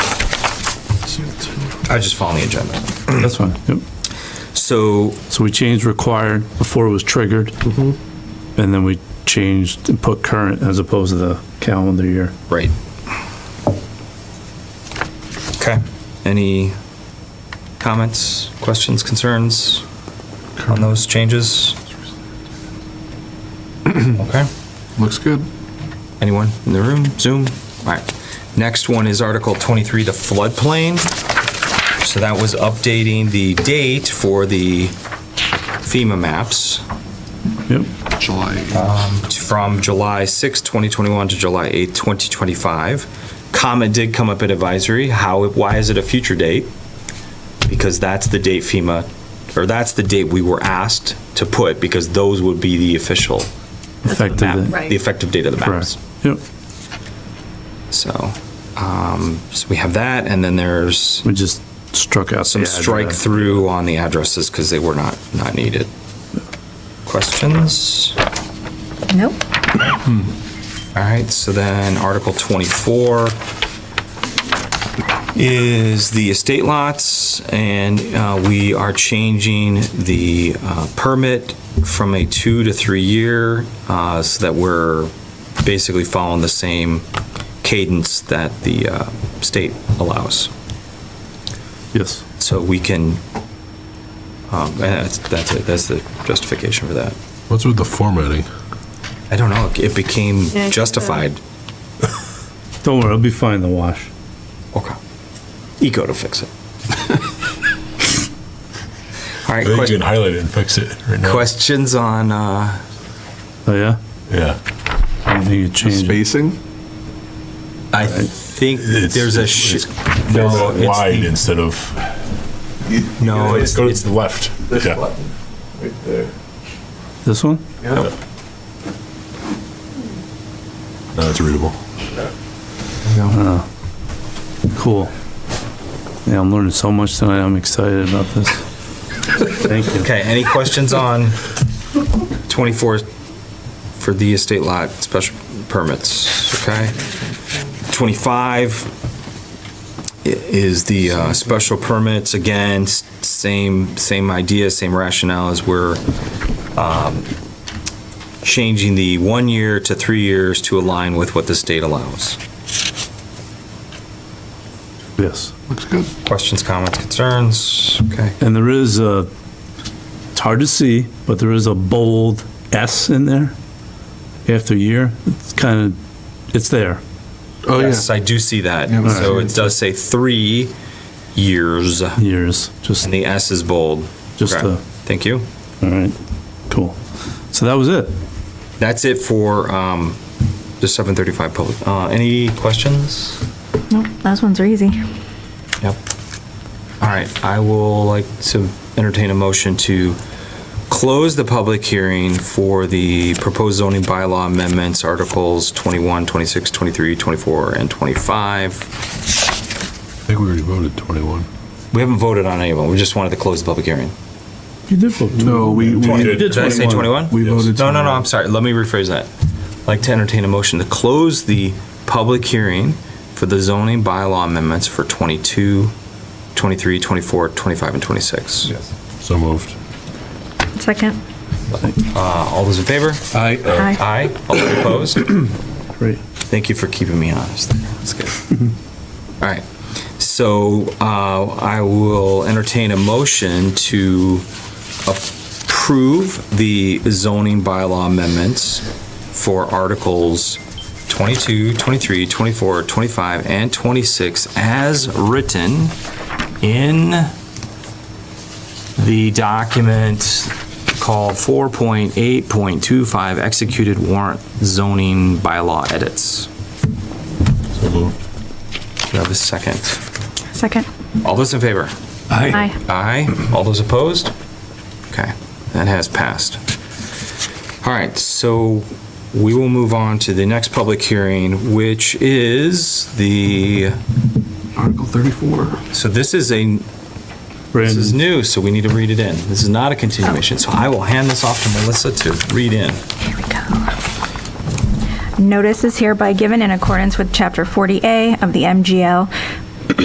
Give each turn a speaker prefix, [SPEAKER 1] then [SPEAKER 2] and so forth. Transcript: [SPEAKER 1] I was just following the agenda.
[SPEAKER 2] That's fine, yep.
[SPEAKER 1] So,
[SPEAKER 2] So we changed required, before it was triggered. And then we changed and put current as opposed to the calendar year.
[SPEAKER 1] right. Okay. Any comments, questions, concerns on those changes? Okay.
[SPEAKER 3] Looks good.
[SPEAKER 1] Anyone in the room? Zoom? All right. Next one is Article 23, the floodplain. So that was updating the date for the FEMA maps
[SPEAKER 2] Yep,
[SPEAKER 3] July.
[SPEAKER 1] from July 6, 2021 to July 8, 2025. Comment did come up at advisory. How, why is it a future date? Because that's the date FEMA, or that's the date we were asked to put because those would be the official map,
[SPEAKER 2] effective,
[SPEAKER 1] the effective date of the maps.
[SPEAKER 2] correct. Yep,
[SPEAKER 1] So, um, so we have that, and then there's
[SPEAKER 2] we just struck out.
[SPEAKER 1] some
[SPEAKER 2] the
[SPEAKER 1] strike
[SPEAKER 2] address.
[SPEAKER 1] through on the addresses because they were not, not needed. Questions?
[SPEAKER 4] Nope.
[SPEAKER 1] All right, so then Article 24 is the estate lots, and uh, we are changing the uh, permit from a two to three-year, uh, so that we're basically following the same cadence that the uh, state allows.
[SPEAKER 2] Yes,
[SPEAKER 1] So we can, um, and that's, that's it, that's the justification for that.
[SPEAKER 3] What's with the formatting?
[SPEAKER 1] I don't know, it became
[SPEAKER 4] Yeah, I think so.
[SPEAKER 1] justified.
[SPEAKER 2] don't worry, it'll be fine in the wash.
[SPEAKER 1] Okay. Eco to fix it. All right,
[SPEAKER 5] I think you
[SPEAKER 1] que-
[SPEAKER 5] can highlight it and fix it right now.
[SPEAKER 1] questions on, uh,
[SPEAKER 2] Oh, yeah?
[SPEAKER 5] Yeah.
[SPEAKER 2] I don't think it changed.
[SPEAKER 3] Spacing?
[SPEAKER 1] I think
[SPEAKER 5] Uh, It's-
[SPEAKER 1] there's a,
[SPEAKER 5] it's-
[SPEAKER 1] sh-
[SPEAKER 5] it's They're
[SPEAKER 1] No,
[SPEAKER 5] all
[SPEAKER 1] it's
[SPEAKER 5] wide
[SPEAKER 1] the-
[SPEAKER 5] instead of.
[SPEAKER 1] no, it's,
[SPEAKER 5] Go
[SPEAKER 1] it's,
[SPEAKER 5] to the left. Yeah.
[SPEAKER 2] This one?
[SPEAKER 5] No, it's readable.
[SPEAKER 2] Uh, Cool. Yeah, I'm learning so much tonight, I'm excited about this. Thank you.
[SPEAKER 1] okay, any questions on 24 for the estate lot special permits, okay? 25 i- is the, uh, special permits, again, s- same, same idea, same rationale as we're um, changing the one year to three years to align with what the state allows.
[SPEAKER 2] Yes.
[SPEAKER 3] Looks good.
[SPEAKER 1] Questions, comments, concerns? Okay.
[SPEAKER 2] And there is a, it's hard to see, but there is a bold S in there after year. It's kind of, it's there.
[SPEAKER 3] Oh,
[SPEAKER 1] Yes, I do see that.
[SPEAKER 3] Yeah, but-
[SPEAKER 1] So it does say three years, and
[SPEAKER 2] years, just,
[SPEAKER 1] the S is bold.
[SPEAKER 2] just
[SPEAKER 1] Okay.
[SPEAKER 2] a,
[SPEAKER 1] Thank you.
[SPEAKER 2] all right, cool. So that was it.
[SPEAKER 1] That's it for um, the 735 public. uh, Any questions?
[SPEAKER 4] Nope. Those ones are easy.
[SPEAKER 1] Yep. All right, I will like to entertain a motion to close the public hearing for the proposed zoning bylaw amendments, Articles 21, 26, 23, 24, and 25.
[SPEAKER 5] I think we already voted 21.
[SPEAKER 1] We haven't voted on any of them, we just wanted to close the public hearing.
[SPEAKER 2] You did vote.
[SPEAKER 3] No, we,
[SPEAKER 5] Twenty.
[SPEAKER 3] we,
[SPEAKER 5] Did
[SPEAKER 1] Did I say 21?
[SPEAKER 3] we
[SPEAKER 5] Yes.
[SPEAKER 3] voted.
[SPEAKER 1] No, no, no, I'm sorry, let me rephrase that. I'd Like to entertain a motion to close the public hearing for the zoning bylaw amendments for 22, 23, 24, 25, and 26.
[SPEAKER 5] So moved.
[SPEAKER 4] Second.
[SPEAKER 1] Uh, All those in favor?
[SPEAKER 3] I,
[SPEAKER 4] Aye.
[SPEAKER 1] Aye. All those opposed?
[SPEAKER 2] Great.
[SPEAKER 1] Thank you for keeping me honest. That's good. All right. So uh, I will entertain a motion to approve the zoning bylaw amendments for Articles 22, 23, 24, 25, and 26 as written in the document called 4.8.25 Executed Warrant Zoning Bylaw Edits.
[SPEAKER 5] So moved.
[SPEAKER 1] Do I have a second?
[SPEAKER 4] Second.
[SPEAKER 1] All those in favor?
[SPEAKER 4] Aye.
[SPEAKER 1] Aye. All those opposed? Okay, that has passed. All right, so we will move on to the next public hearing, which is the,
[SPEAKER 3] Article 34.
[SPEAKER 1] so this is a, this is
[SPEAKER 2] Brandon,
[SPEAKER 1] new, so we need to read it in. This is not a continuation, so I will hand this off to Melissa to read in.
[SPEAKER 4] Here we go. Notice is hereby given in accordance with Chapter 40A of the MGL